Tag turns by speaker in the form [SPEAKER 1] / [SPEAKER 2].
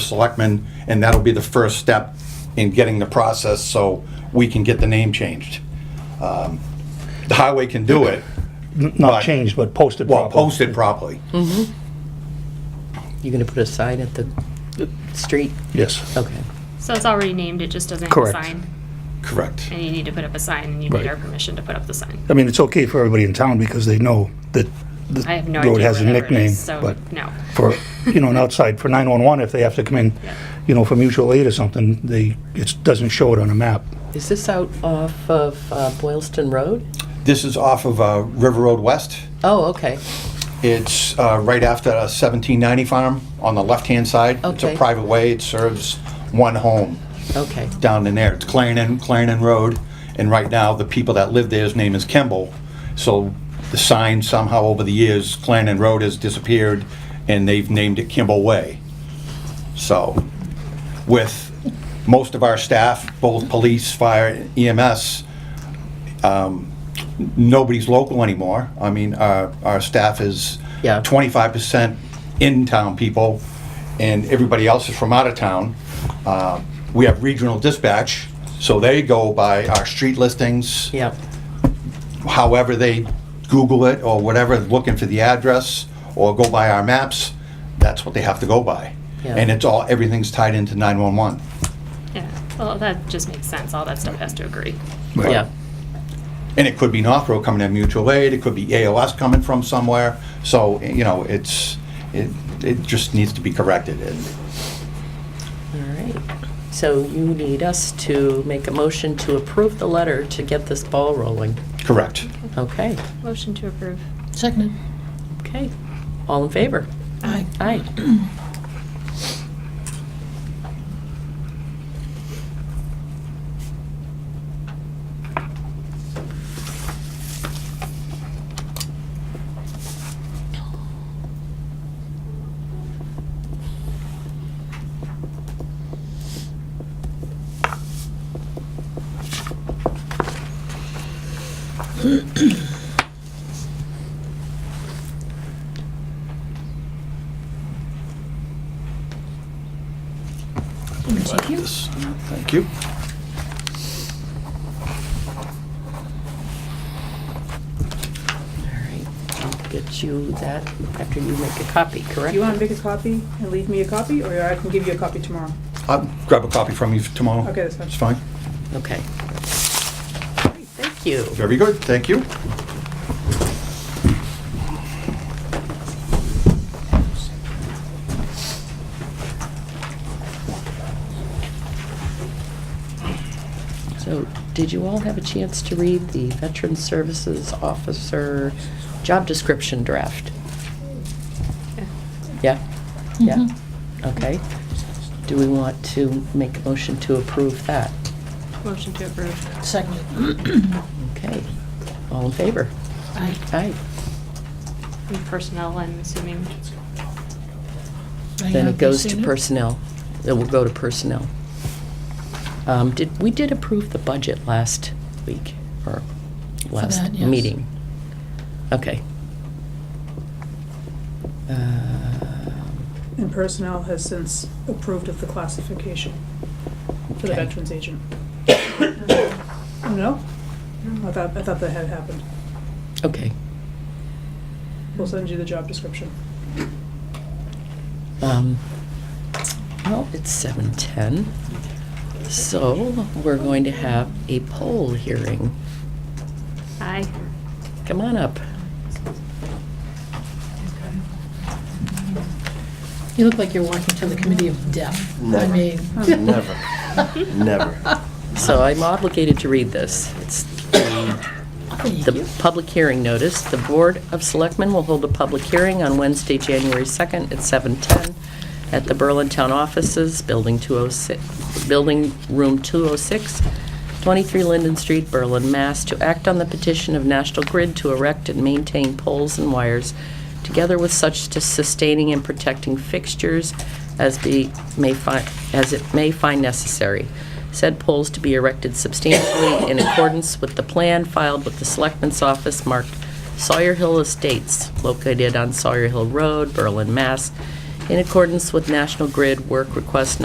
[SPEAKER 1] Selectmen, and that'll be the first step in getting the process so we can get the name changed. Um, The highway can do it,
[SPEAKER 2] Not changed, but posted
[SPEAKER 1] well,
[SPEAKER 2] properly.
[SPEAKER 1] posted properly.
[SPEAKER 3] You're gonna put a sign at the street?
[SPEAKER 2] Yes.
[SPEAKER 3] Okay.
[SPEAKER 4] So it's already named, it just doesn't have a
[SPEAKER 2] Correct.
[SPEAKER 4] sign.
[SPEAKER 1] Correct.
[SPEAKER 4] And you need to put up a sign, and you need
[SPEAKER 2] Right.
[SPEAKER 4] our permission to put up the sign.
[SPEAKER 2] I mean, it's okay for everybody in town because they know that the
[SPEAKER 4] I have no
[SPEAKER 2] road
[SPEAKER 4] idea
[SPEAKER 2] has a
[SPEAKER 4] whatever it
[SPEAKER 2] nickname,
[SPEAKER 4] is, so,
[SPEAKER 2] but
[SPEAKER 4] no.
[SPEAKER 2] for, you know, an outside, for 911, if they have to come in,
[SPEAKER 4] Yeah.
[SPEAKER 2] you know, for mutual aid or something, they, it doesn't show it on a map.
[SPEAKER 3] Is this out off of uh, Boylston Road?
[SPEAKER 1] This is off of uh, River Road West.
[SPEAKER 3] Oh, okay.
[SPEAKER 1] It's uh, right after a 1790 farm on the left-hand side. It's a
[SPEAKER 3] Okay.
[SPEAKER 1] private way. It serves one home
[SPEAKER 3] Okay.
[SPEAKER 1] down in there. It's Clarendon, Clarendon Road. And right now, the people that live there's name is Kimball. So the sign somehow over the years, Clarendon Road has disappeared and they've named it Kimball Way. So with most of our staff, both police, fire, E EMS, um, nobody's local anymore. I mean, our, our staff is
[SPEAKER 3] Yeah.
[SPEAKER 1] twenty-five percent in-town people, and everybody else is from out of town. Uh, We have regional dispatch, so they go by our street listings,
[SPEAKER 3] Yeah.
[SPEAKER 1] however they Google it or whatever, looking for the address, or go by our maps, that's what they have to go by.
[SPEAKER 3] Yeah.
[SPEAKER 1] And it's all, everything's tied into nine-one-one.
[SPEAKER 4] Yeah, well, that just makes sense, all that stuff has to agree.
[SPEAKER 3] Yeah.
[SPEAKER 1] And it could be Northborough coming in mutual aid, it could be ALS coming from somewhere, so, you know, it's, it, it just needs to be corrected. And
[SPEAKER 3] All right. So you need us to make a motion to approve the letter to get this ball rolling.
[SPEAKER 1] Correct.
[SPEAKER 3] Okay.
[SPEAKER 4] Motion to approve.
[SPEAKER 5] Seconded.
[SPEAKER 3] Okay. All in favor?
[SPEAKER 5] Aye.
[SPEAKER 3] Aye.
[SPEAKER 5] Thank you.
[SPEAKER 1] This- Thank you.
[SPEAKER 3] All right. I'll get you that after you make a copy, correct?
[SPEAKER 6] You want to make a copy and leave me a copy, or I can give you a copy tomorrow?
[SPEAKER 1] I'll grab a copy from you tomorrow.
[SPEAKER 6] Okay, that's fine.
[SPEAKER 1] It's fine.
[SPEAKER 3] Okay. All right, Thank you.
[SPEAKER 1] Very good, thank you.
[SPEAKER 3] So, did you all have a chance to read the Veteran Services Officer job description draft?
[SPEAKER 4] Yeah.
[SPEAKER 3] Yeah? Yeah?
[SPEAKER 5] Mm-hmm.
[SPEAKER 3] Okay. Do we want to make a motion to approve that?
[SPEAKER 4] Motion to approve.
[SPEAKER 5] Seconded.
[SPEAKER 3] Okay. All in favor?
[SPEAKER 5] Aye.
[SPEAKER 3] Aye.
[SPEAKER 4] And Personnel, I'm assuming.
[SPEAKER 3] Then it goes to personnel. It will go to personnel. Um, Did, we did approve the budget last week, or last
[SPEAKER 5] that, yes.
[SPEAKER 3] meeting? Okay. Um,
[SPEAKER 6] And personnel has since approved of the classification for the
[SPEAKER 3] Okay.
[SPEAKER 6] veterans agent. No? I thought, I thought that had happened.
[SPEAKER 3] Okay.
[SPEAKER 6] We'll send you the job description.
[SPEAKER 3] Um, Well, it's 7:10, so we're going to have a poll hearing.
[SPEAKER 4] Aye.
[SPEAKER 3] Come on up.
[SPEAKER 5] You look like you're walking to the committee of death. I
[SPEAKER 7] Never.
[SPEAKER 5] mean.
[SPEAKER 7] Never. Never.
[SPEAKER 3] So I'm obligated to read this. It's the
[SPEAKER 5] Thank
[SPEAKER 3] The
[SPEAKER 5] you.
[SPEAKER 3] public hearing notice, the Board of Selectmen will hold a public hearing on Wednesday, January 2nd at 7:10 at the Berlin Town Offices, Building 206, Building Room 206, 23 Linden Street, Berlin, Mass., to act on the petition of National Grid to erect and maintain poles and wires, together with such to sustaining and protecting fixtures as be, may find, as it may find necessary. Said poles to be erected substantially in accordance with the plan filed with the Selectmen's Office marked Sawyer Hill Estates, located on Sawyer Hill Road, Berlin, Mass. in accordance with National Grid Work Request